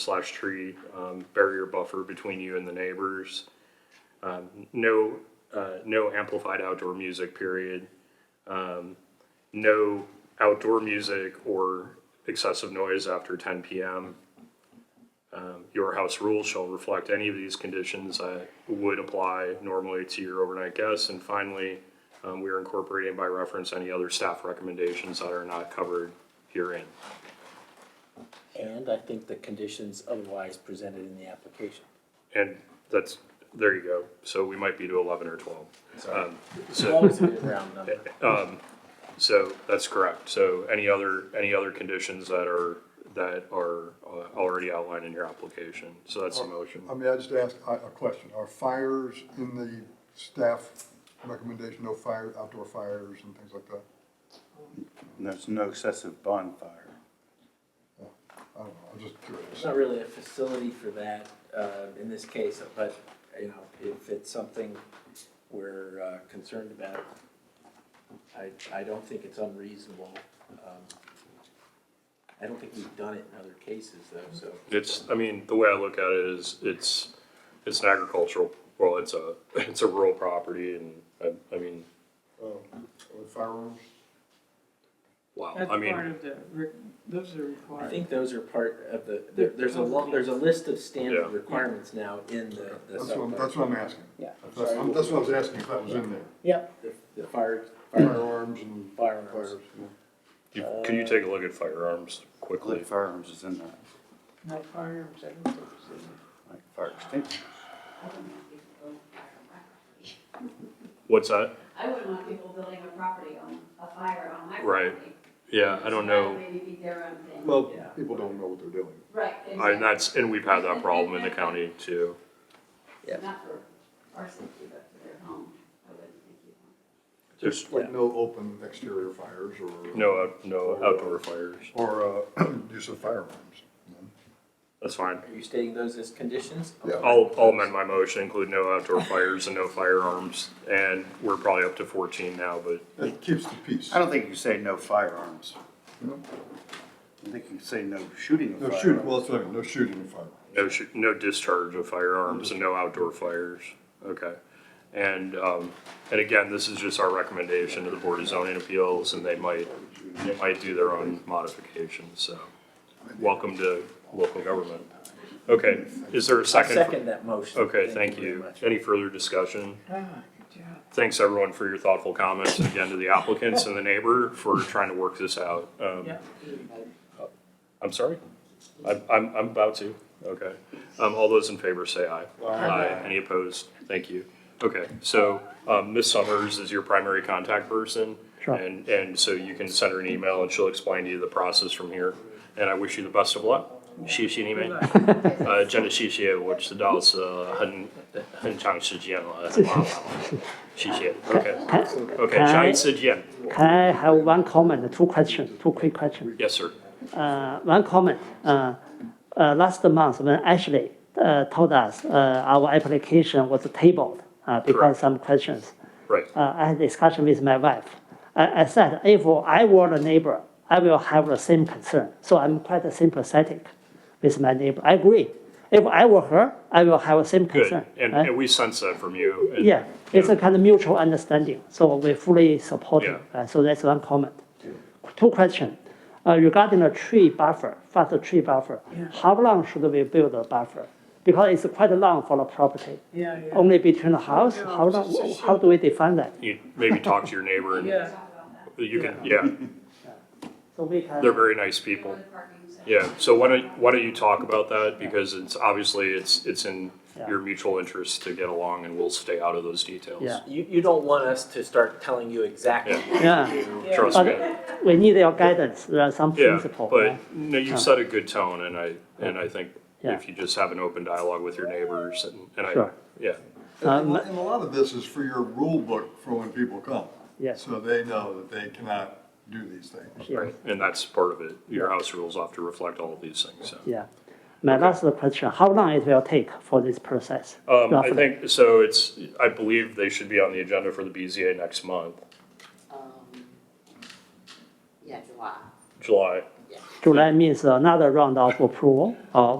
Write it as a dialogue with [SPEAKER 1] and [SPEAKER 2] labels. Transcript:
[SPEAKER 1] slash tree um, barrier buffer between you and the neighbors. Um, no, uh, no amplified outdoor music. Period. Um, no outdoor music or excessive noise after 10 p.m. Um, your house rules shall reflect any of these conditions that would apply normally to your overnight guests. And finally, um, we are incorporating by reference any other staff recommendations that are not covered herein.
[SPEAKER 2] And I think the conditions otherwise presented in the application.
[SPEAKER 1] And that's, there you go. So we might be to eleven or twelve.
[SPEAKER 2] Sorry. As
[SPEAKER 1] So,
[SPEAKER 2] long as it's a round number.
[SPEAKER 1] so that's correct. So any other, any other conditions that are, that are uh, already outlined in your application? So that's the motion.
[SPEAKER 3] I mean, I just asked a, a question. Are fires in the staff recommendation, no fire, outdoor fires and things like that?
[SPEAKER 4] And There's no excessive bonfire.
[SPEAKER 3] I don't know, I'm just
[SPEAKER 2] It's
[SPEAKER 3] curious.
[SPEAKER 2] not really a facility for that, uh, in this case, but, you know, if it's something we're, uh, concerned about, I, I don't think it's unreasonable. Um, I don't think we've done it in other cases though, so.
[SPEAKER 1] It's, I mean, the way I look at it is, it's, it's an agricultural, well, it's a, it's a rural property and, I, I mean,
[SPEAKER 3] Oh, with Firearms?
[SPEAKER 1] wow.
[SPEAKER 5] That's
[SPEAKER 1] I
[SPEAKER 5] part
[SPEAKER 1] mean,
[SPEAKER 5] of the, re- those are required.
[SPEAKER 2] I think those are part of the, there, there's a lo, there's a list of standard
[SPEAKER 1] Yeah.
[SPEAKER 2] requirements now in the, the
[SPEAKER 3] That's
[SPEAKER 2] sub-
[SPEAKER 3] what, that's what I'm asking.
[SPEAKER 2] Yeah.
[SPEAKER 3] That's, I'm- that's what I was asking, if that was in there.
[SPEAKER 2] Yep. The fire, fire,
[SPEAKER 3] Firearms and
[SPEAKER 2] firearms.
[SPEAKER 3] fires.
[SPEAKER 1] you- could you take a look at firearms quickly?
[SPEAKER 4] Live firearms is in there,
[SPEAKER 5] No firearms, I don't think it's in
[SPEAKER 4] like fire extinguisher.
[SPEAKER 1] What's that?
[SPEAKER 6] I wouldn't want people building a property on, a fire on my
[SPEAKER 1] Right.
[SPEAKER 6] property.
[SPEAKER 1] Yeah, I don't know.
[SPEAKER 6] Maybe be their own thing.
[SPEAKER 3] Well,
[SPEAKER 2] Yeah.
[SPEAKER 3] people don't know what they're doing.
[SPEAKER 6] Right.
[SPEAKER 1] And that's, and we've had that problem in the county too.
[SPEAKER 6] exactly. Not for our safety, but for their home, I wouldn't think you'd want.
[SPEAKER 3] Just like no open exterior fires or.
[SPEAKER 1] No, out- no outdoor fires.
[SPEAKER 3] Or, uh, use of firearms.
[SPEAKER 1] That's fine.
[SPEAKER 2] Are you stating those as conditions?
[SPEAKER 3] Yeah.
[SPEAKER 1] I'll, I'll amend my motion, include no outdoor fires and no firearms. And we're probably up to fourteen now, but
[SPEAKER 3] It keeps the peace.
[SPEAKER 4] I don't think you say no firearms.
[SPEAKER 3] No.
[SPEAKER 4] I think you say no shooting of
[SPEAKER 3] No
[SPEAKER 4] firearms.
[SPEAKER 3] shooting, well, that's what I mean, no shooting of firearms.
[SPEAKER 1] no, sh- no discharge of firearms and no outdoor fires. Okay. And, um, and again, this is just our recommendation to the Board of Zoning Appeals and they might, they might do their own modifications, so. Welcome to local government. Okay, is there a
[SPEAKER 2] I
[SPEAKER 1] second?
[SPEAKER 2] second that motion.
[SPEAKER 1] Okay, thank you.
[SPEAKER 2] very much.
[SPEAKER 1] Any further discussion?
[SPEAKER 5] there. Ah, good job.
[SPEAKER 1] Thanks everyone for your thoughtful comments and again to the applicants and the neighbor for trying to work this out. Um,
[SPEAKER 5] Yeah.
[SPEAKER 1] I'm sorry? I'm, I'm, I'm about to, okay. Um, all those in favor say aye. Aye. Any opposed? Thank you. Okay, so, um, Ms. Summers is your primary contact person. Sure. And, and so you can send her an email and she'll explain to you the process from here. And I wish you the best of luck. Xi xi ni mei. Uh, uh, 真的谢谢，我知道是很很长时间了，谢谢。Okay, okay,
[SPEAKER 7] Hi.
[SPEAKER 1] 下一次见.
[SPEAKER 7] Can I have one comment, two questions, two quick questions?
[SPEAKER 1] Yes, sir.
[SPEAKER 7] Uh, one comment, uh, uh, last month when Ashley, uh, told us, uh, our application was tabled, uh,
[SPEAKER 1] Correct.
[SPEAKER 7] because some questions.
[SPEAKER 1] Right.
[SPEAKER 7] Uh, I had discussion with my wife. I, I said, if I were a neighbor, I will have the same concern, so I'm quite sympathetic with my neighbor, I agree. If I were her, I will have the same
[SPEAKER 1] Good.
[SPEAKER 7] concern.
[SPEAKER 1] And,
[SPEAKER 7] right?
[SPEAKER 1] and we sense that from you. and-
[SPEAKER 7] Uh, Yeah, it's a kind of mutual understanding, so we fully support it.
[SPEAKER 1] Yeah.
[SPEAKER 7] Uh, So that's one comment. Two question, uh, regarding the tree buffer, fast tree buffer, how long should we build a buffer? Because it's quite long for the property,
[SPEAKER 5] Yeah, yeah.
[SPEAKER 7] only between the house,
[SPEAKER 5] Yeah,
[SPEAKER 7] how long,
[SPEAKER 5] it's a
[SPEAKER 7] how do we define that?
[SPEAKER 1] You maybe talk to your neighbor and
[SPEAKER 5] Yeah,
[SPEAKER 6] Talk about that.
[SPEAKER 1] you can, yeah,
[SPEAKER 7] So we can.
[SPEAKER 1] they're very nice people.
[SPEAKER 6] Other parking sections.
[SPEAKER 1] Yeah, so why don't, why don't you talk about that? Because it's obviously, it's, it's in
[SPEAKER 7] Yeah.
[SPEAKER 1] your mutual interest to get along and we'll stay out of those details.
[SPEAKER 7] Yeah.
[SPEAKER 2] You, you don't want us to start telling you exactly.
[SPEAKER 7] Yeah,
[SPEAKER 1] Trust
[SPEAKER 7] But-
[SPEAKER 1] me.
[SPEAKER 7] we need your guidance, there are some
[SPEAKER 1] Yeah,
[SPEAKER 7] principle. right?
[SPEAKER 1] but no, you set a good tone and I, and I think
[SPEAKER 7] Yeah.
[SPEAKER 1] if you just have an open dialogue with your neighbors and, and I,
[SPEAKER 7] Sure.
[SPEAKER 1] yeah.
[SPEAKER 3] And and a lot of this is for your rule book for when people come.
[SPEAKER 7] Yes.
[SPEAKER 3] So they know that they cannot do these things.
[SPEAKER 7] Yeah.
[SPEAKER 1] Right, and that's part of it. Your house rules have to reflect all of these things, so.
[SPEAKER 7] Yeah. My last question, how long it will take for this process?
[SPEAKER 1] Um, I
[SPEAKER 7] roughly?
[SPEAKER 1] think, so it's, I believe they should be on the agenda for the BZA next month,
[SPEAKER 8] Um, yeah, July,
[SPEAKER 1] July.
[SPEAKER 8] yeah.
[SPEAKER 7] July means another round of approval, or